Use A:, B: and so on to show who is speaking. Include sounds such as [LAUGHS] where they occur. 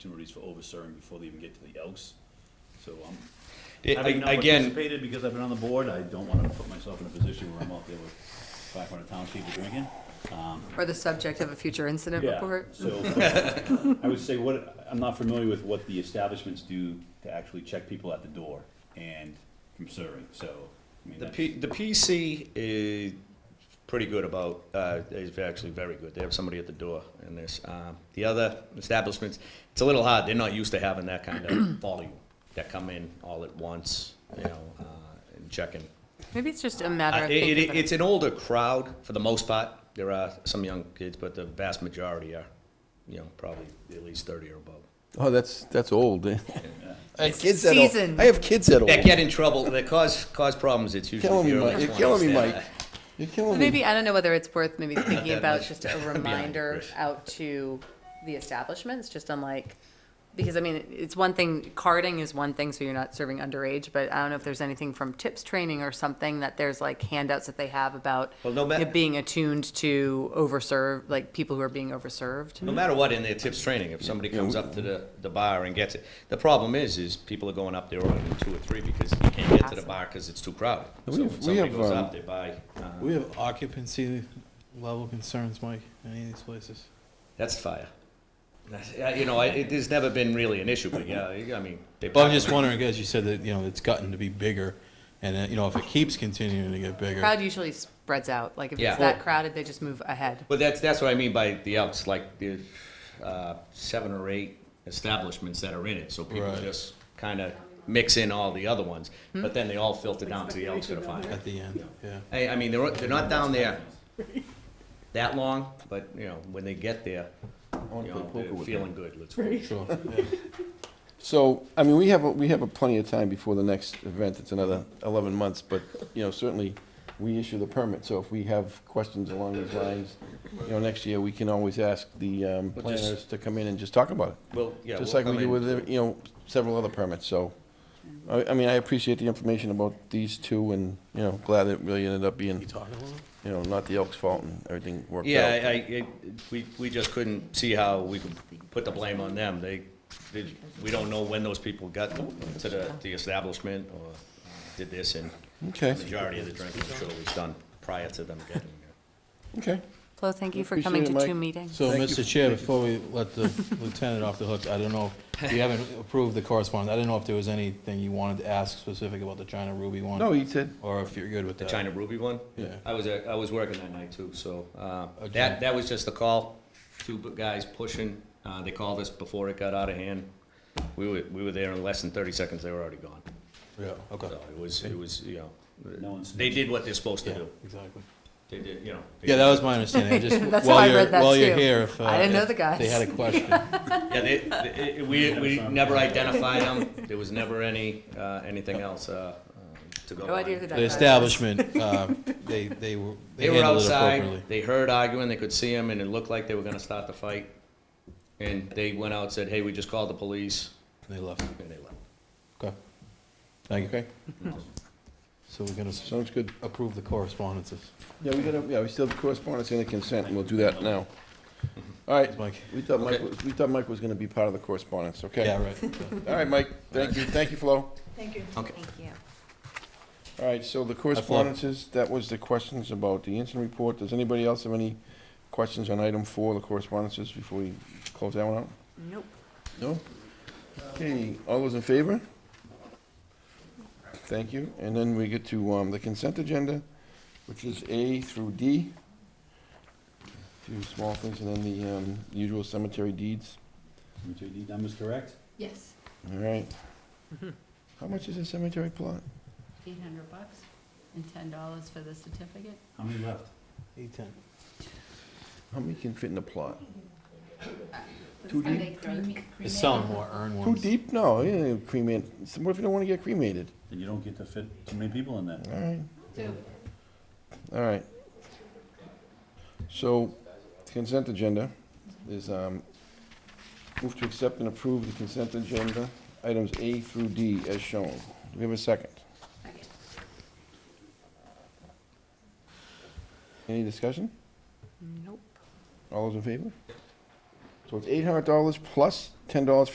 A: opportunities for overserving before they even get to the Elks. So I'm,
B: It-
A: having not
B: a- Again,
A: participated because I've been on the board, I don't want to put myself in a position where I'm out there with five hundred townspeople drinking. Um,
C: Or the subject of a future incident
A: Yeah,
C: report?
A: so I would say what, I'm not familiar with what the establishments do to actually check people at the door and from serving, so. I mean,
B: the
A: that's-
B: P, the PC is pretty good about, uh, is actually very good. They have somebody at the door in this. Um, The other establishments, it's a little hard. They're not used to having that kind of volume that come in all at once, you know, uh, and checking.
C: Maybe it's just a matter
B: Uh,
C: of
B: it- it-
C: thinking about
B: It's an older crowd for the most part. There are some young kids, but the vast majority are, you know, probably at least thirty or above.
D: Oh, that's that's old. eh? I have
C: It's
D: kids that old.
C: seasoned.
D: I have kids that old.
B: That get in trouble, that cause, cause problems, it's usually.
D: killing me,
B: the
D: Mike.
B: earliest
D: You're
B: one.
D: killing me,
B: Understand
D: Mike.
B: that.
D: You're killing me.
C: Maybe, I don't know whether it's
B: [COUGHS]
C: worth maybe thinking
B: that
C: about
B: much.
C: just
B: [LAUGHS]
C: a
B: Behind
C: reminder
B: Chris.
C: out to the establishments, just on like, because I mean, it's one thing, carding is one thing, so you're not serving underage, but I don't know if there's anything from tips training or something that there's like handouts that they have about
B: Well, no ma-
C: it being attuned to overserve, like people who are being overserved.
B: No matter what, in their tips training, if somebody comes up to the, the bar and gets it, the problem is, is people are going up there ordering two or three because you can't get to the bar because it's too crowded.
D: We
B: So
D: have-
B: if
D: we
B: somebody
D: have,
B: goes up,
D: um,
B: they buy, uh,
E: We have occupancy level concerns, Mike, in any of these places.
B: that's fire. That's- yeah, You know, I, it, there's never been really an issue, but yeah, I mean. they
E: But I'm just wondering, guys, you said that, you know, it's gotten to be bigger, and, uh, you know, if it keeps continuing to get bigger,
C: Crowd usually spreads out, like if
B: Yeah.
C: it's that crowded, they just move ahead.
B: But that's, that's what I mean by the outs, like the, uh, seven or eight establishments that are in it, so people
E: Right.
B: just kinda mix in all the other ones, but then they all filter down to the outs for the final.
E: at the end, yeah.
B: Hey, I mean, they're, they're not down there that long, but, you know, when they get there, you know, they're feeling good, let's go.
E: Sure, yeah.
D: So, I mean, we have a, we have a plenty of time before the next event. It's another 11 months, but you know, certainly we issue the permit. So if we have questions along these lines, you know, next year we can always ask the um,
B: Well, just-
D: planners to come in and just talk about it,
B: Well, yeah.
D: just
B: we'll
D: like we
B: come
D: do
B: in.
D: with you know several other permits. So, I, I mean, I appreciate the information about these two, and you know, glad it really ended up being you know not the Elks' fault and everything worked
B: Yeah,
D: out.
B: I, I, it- we, we just couldn't see how we could put the blame on them. They, they, we don't know when those people got to the, the establishment or did this, and the
D: Okay.
B: majority of the drinking I'm sure was done prior to them getting there.
D: Okay.
C: Flo, thank you for
D: Appreciate
C: coming
D: it,
C: to
D: Mike.
C: two meetings.
E: So,
D: Thank you.
E: Mr. Chair, before we let the lieutenant off the hook, I don't know, if you haven't approved the correspondence, I didn't know if there was anything you wanted to ask specific about the China Ruby one?
D: No, he said.
E: Or if you're good with
B: The
E: that?
B: China Ruby one?
E: Yeah. Oh,
B: I was, uh, I was working that night too, so, uh,
E: Okay.
B: that, that was just a call, two bu- guys pushing, uh, they called us before it got out of hand. We were, we were there in less than thirty seconds, they were already gone,
E: Yeah, okay.
B: so it was, it was, you
A: No
B: know,
A: one's-
B: they did what they're supposed to
E: Yeah,
B: do,
E: exactly.
B: they did, you know. they
E: Yeah,
B: did-
E: that was my understanding, I just,
C: [LAUGHS] That's how I
E: while you're,
C: read that
E: while you're
C: too.
E: here, if. uh,
C: I didn't know
E: if
C: the guys. [LAUGHS]
E: They had a question.
B: Yeah, they, they- it- we, we never identified them, there was never any, uh, anything else, uh, um, to go on.
C: No idea who that
E: The
C: guy is.
E: establishment, uh, they, they were, they
B: They were
E: handled it
B: outside,
E: appropriately.
B: they heard arguing, they could see him, and it looked like they were gonna start the fight. And they went out, said, hey, we just called the police,
E: They left.
B: and they left.
E: Okay. Thank you.
D: Okay.
E: So we're gonna s-
D: Sounds good.
E: approve the correspondences.
D: Yeah, we gotta, yeah, we still have correspondence and the consent, and we'll do that now. All right,
E: Thanks, Mike.
D: we thought Mike,
B: Okay.
D: was- we thought Mike was gonna be part of the correspondence, okay?
E: Yeah, right. Yeah.
D: All right, Mike, thank you, thank you, Flo.
B: Okay.
C: Thank you.
D: All right, so the correspondences, that was the questions about the incident report. Does anybody else have any questions on item four, the correspondences, before we close that one out?
C: Nope.
D: No? Okay, all those in favor? Thank you. And then we get to um, the consent agenda, which is A through D. A Few small things, and then the um, usual cemetery deeds.
A: MJD numbers correct?
F: Yes,
D: All right. How much is a cemetery plot?
F: eight hundred bucks and ten dollars for the certificate.
A: How many left?
E: Eight, ten.
D: How many can fit in a plot?
F: Too deep?
E: It's selling more urn
D: Too
E: ones.
D: deep? No, you don't cremate. So What if you don't want to get cremated?
A: Then you don't get to fit too many people in that.
D: All right,
F: Two.
D: all right. So consent agenda is, um, move to accept and approve the consent agenda, items A through D as shown. Do we have a second?
F: Okay.
D: Any discussion?
C: Nope.
D: All those in favor? So it's eight hundred dollars plus ten dollars